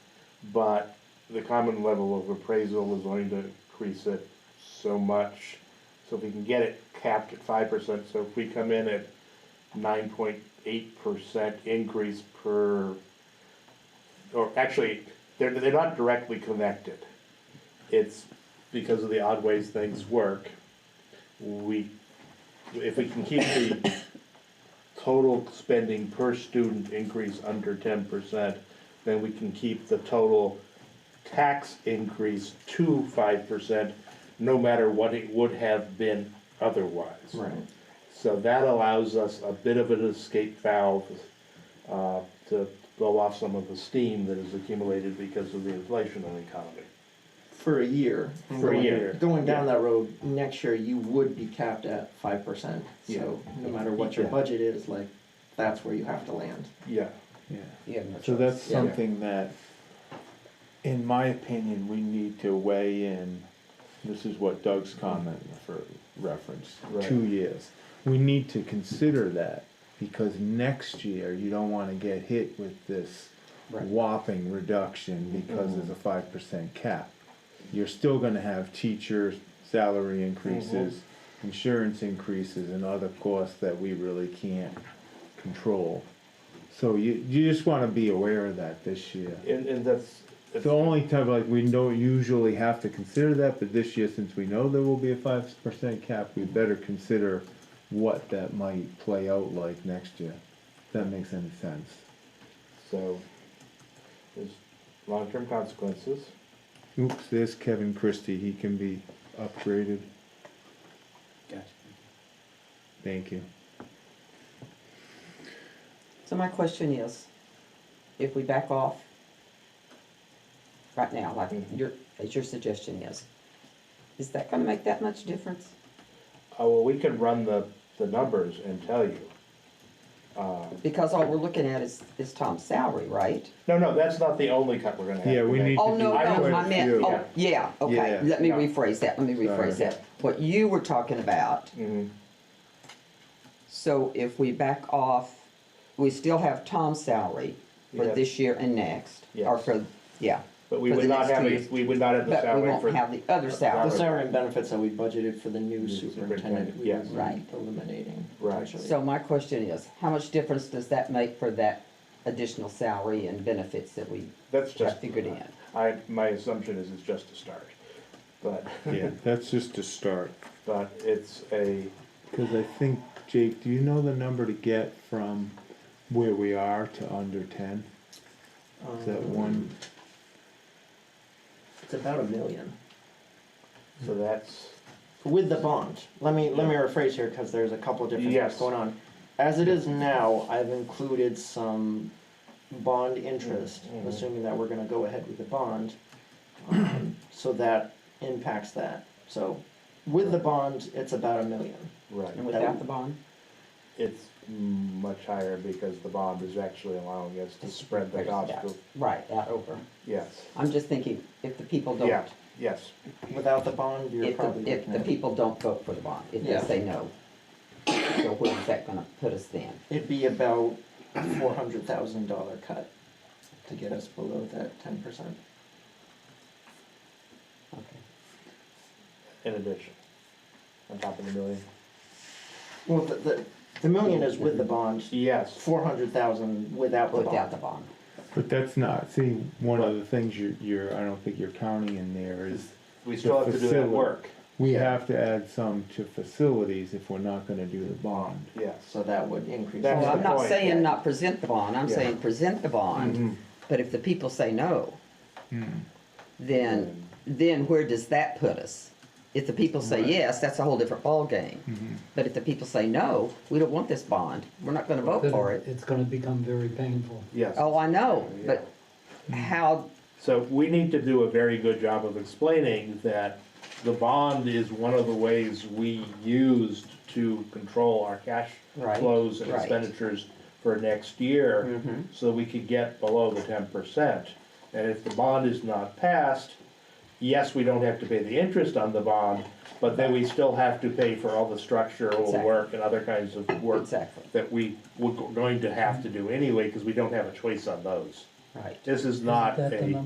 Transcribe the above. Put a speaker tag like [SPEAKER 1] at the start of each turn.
[SPEAKER 1] but the common level of appraisal is going to increase it so much. So if we can get it capped at five percent, so if we come in at nine point eight percent increase per, or actually, they're, they're not directly connected. It's because of the odd ways things work, we, if we can keep the total spending per student increase under ten percent, then we can keep the total tax increase to five percent, no matter what it would have been otherwise.
[SPEAKER 2] Right.
[SPEAKER 1] So that allows us a bit of an escape valve uh, to blow off some of the steam that is accumulated because of the inflation in the economy.
[SPEAKER 2] For a year.
[SPEAKER 1] For a
[SPEAKER 2] Going-
[SPEAKER 1] year.
[SPEAKER 2] Going down that road, next year you would be capped at five percent. So no matter what your
[SPEAKER 1] Yeah.
[SPEAKER 2] budget is, like, that's where you have to land.
[SPEAKER 1] Yeah,
[SPEAKER 3] Yeah,
[SPEAKER 2] You have no
[SPEAKER 3] so that's
[SPEAKER 2] choice. Yeah.
[SPEAKER 3] something that, in my opinion, we need to weigh in. This is what Doug's comment for reference,
[SPEAKER 1] Right.
[SPEAKER 3] two years. We need to consider that because next year you don't wanna get hit with this
[SPEAKER 2] Right. Mm-hmm.
[SPEAKER 3] whopping reduction because there's a five percent cap. You're still gonna have teacher salary increases,
[SPEAKER 2] Mm-hmm.
[SPEAKER 3] insurance increases and other costs that we really can't control. So you, you just want to be aware of that this year.
[SPEAKER 1] and, and that's,
[SPEAKER 3] It's the only time like we don't usually have to consider that, but this year since we know there will be a five percent cap, we better consider what that might play out like next year. If that makes any sense.
[SPEAKER 1] so, there's long-term consequences.
[SPEAKER 3] Oops, there's Kevin Christie. He can be upgraded.
[SPEAKER 4] Gotcha.
[SPEAKER 3] Thank you.
[SPEAKER 5] So my question is, if we back off right now, like
[SPEAKER 1] Mhm.
[SPEAKER 5] your, as your suggestion is, is that gonna make that much difference?
[SPEAKER 1] Oh, well, we could run the, the numbers and tell you. Uh,
[SPEAKER 5] Because all we're looking at is, is Tom's salary, right?
[SPEAKER 1] No, no, that's not the only cut we're gonna have.
[SPEAKER 3] Yeah, we
[SPEAKER 1] to make.
[SPEAKER 3] need
[SPEAKER 5] Oh, no,
[SPEAKER 1] I
[SPEAKER 5] no,
[SPEAKER 1] know
[SPEAKER 5] I
[SPEAKER 1] it's
[SPEAKER 5] meant,
[SPEAKER 1] you.
[SPEAKER 5] oh, yeah, okay,
[SPEAKER 3] Yeah.
[SPEAKER 5] let me
[SPEAKER 1] Yeah.
[SPEAKER 5] rephrase that, let me rephrase
[SPEAKER 3] Sorry.
[SPEAKER 5] that. What you were talking about,
[SPEAKER 1] Mhm.
[SPEAKER 5] so if we back off, we still have Tom's salary for
[SPEAKER 1] Yeah.
[SPEAKER 5] this year and next, or
[SPEAKER 1] Yes.
[SPEAKER 5] for, yeah.
[SPEAKER 1] But we
[SPEAKER 5] for
[SPEAKER 1] would
[SPEAKER 5] the
[SPEAKER 1] not
[SPEAKER 5] next
[SPEAKER 1] have,
[SPEAKER 5] two
[SPEAKER 1] a
[SPEAKER 5] years.
[SPEAKER 1] we would not have the
[SPEAKER 5] But we
[SPEAKER 1] salary
[SPEAKER 5] won't
[SPEAKER 1] for,
[SPEAKER 5] have the other
[SPEAKER 1] Right.
[SPEAKER 2] The
[SPEAKER 5] salary.
[SPEAKER 2] salary and benefits that we budgeted for the new superintendent,
[SPEAKER 1] superintendent,
[SPEAKER 2] we
[SPEAKER 1] yes.
[SPEAKER 2] would be
[SPEAKER 5] Right.
[SPEAKER 2] eliminating.
[SPEAKER 1] Right.
[SPEAKER 2] actually.
[SPEAKER 5] So my question is, how much difference does that make for that additional salary and benefits that we
[SPEAKER 1] that's just.
[SPEAKER 5] have figured in?
[SPEAKER 1] I, my assumption is it's just a start, but,
[SPEAKER 3] Yeah, that's just a start.
[SPEAKER 1] but it's a,
[SPEAKER 3] Because I think, Jake, do you know the number to get from where we are to under ten? Is that
[SPEAKER 2] Um,
[SPEAKER 3] one?
[SPEAKER 2] It's about a million.
[SPEAKER 1] so
[SPEAKER 5] Hmm.
[SPEAKER 1] that's,
[SPEAKER 2] With the bond, let me, let me rephrase here, cause there's a couple of different
[SPEAKER 1] Yes.
[SPEAKER 2] things going on. As it is now, I've included some bond interest,
[SPEAKER 1] Mhm.
[SPEAKER 5] Mm-hmm.
[SPEAKER 2] assuming that we're gonna go ahead with the bond. um, So that impacts that, so with the bond, it's about a million.
[SPEAKER 5] And
[SPEAKER 1] right,
[SPEAKER 5] without the bond?
[SPEAKER 1] it's much higher because the bond is actually allowing us to spread the gospel.
[SPEAKER 5] Right, out over.
[SPEAKER 1] Yes,
[SPEAKER 5] I'm just thinking, if the people
[SPEAKER 1] yeah,
[SPEAKER 5] don't,
[SPEAKER 1] yes,
[SPEAKER 2] Without the bond, you're
[SPEAKER 5] if
[SPEAKER 2] probably
[SPEAKER 5] the, if
[SPEAKER 2] looking
[SPEAKER 5] the
[SPEAKER 2] at,
[SPEAKER 5] people don't vote for the bond, if they
[SPEAKER 2] Yeah.
[SPEAKER 5] say no, so where is that gonna put us then?
[SPEAKER 2] it'd be about four hundred thousand dollar cut to get us below that ten percent.
[SPEAKER 5] Okay.
[SPEAKER 1] in addition, on top of the million.
[SPEAKER 2] Well, the, the, the million is with the bond,
[SPEAKER 1] Yes,
[SPEAKER 2] four hundred thousand without the
[SPEAKER 5] Mm-hmm.
[SPEAKER 2] bond.
[SPEAKER 5] Without the bond.
[SPEAKER 3] But that's not, see, one of the things you're, you're, I don't think you're counting in there is,
[SPEAKER 1] we still have to do that
[SPEAKER 3] Facility.
[SPEAKER 1] work,
[SPEAKER 3] we
[SPEAKER 1] Yeah.
[SPEAKER 3] have to add some to facilities if we're not gonna do the bond.
[SPEAKER 1] yes.
[SPEAKER 2] So that would increase.
[SPEAKER 1] That's
[SPEAKER 5] Well,
[SPEAKER 1] the
[SPEAKER 5] I'm not
[SPEAKER 1] point,
[SPEAKER 5] saying
[SPEAKER 1] yeah.
[SPEAKER 5] not present the bond, I'm
[SPEAKER 1] Yeah.
[SPEAKER 5] saying present the
[SPEAKER 1] Mhm.
[SPEAKER 5] bond, but if the people say no, then, then where does that put us? If the people say yes, that's a whole different ballgame.
[SPEAKER 3] Hmm. Mm-hmm.
[SPEAKER 5] But if the people say no, we don't want this bond, we're not gonna vote
[SPEAKER 4] Then
[SPEAKER 5] for it.
[SPEAKER 4] It's gonna become very painful.
[SPEAKER 1] Yes.
[SPEAKER 5] Oh, I know, but how,
[SPEAKER 1] So we need to do a very good job of explaining that the bond is one of the ways we used to control our cash
[SPEAKER 5] Right,
[SPEAKER 1] flows and
[SPEAKER 5] right.
[SPEAKER 1] expenditures for next year,
[SPEAKER 5] Mhm.
[SPEAKER 1] so we could get below the ten percent. And if the bond is not passed, yes, we don't have to pay the interest on the bond, but then we still have to pay for all the structural
[SPEAKER 5] Exactly.
[SPEAKER 1] work and other kinds of work
[SPEAKER 5] Exactly.
[SPEAKER 1] that we were going to have to do anyway, because we don't have a choice on those.
[SPEAKER 5] right.
[SPEAKER 1] This is not
[SPEAKER 4] that the
[SPEAKER 1] a.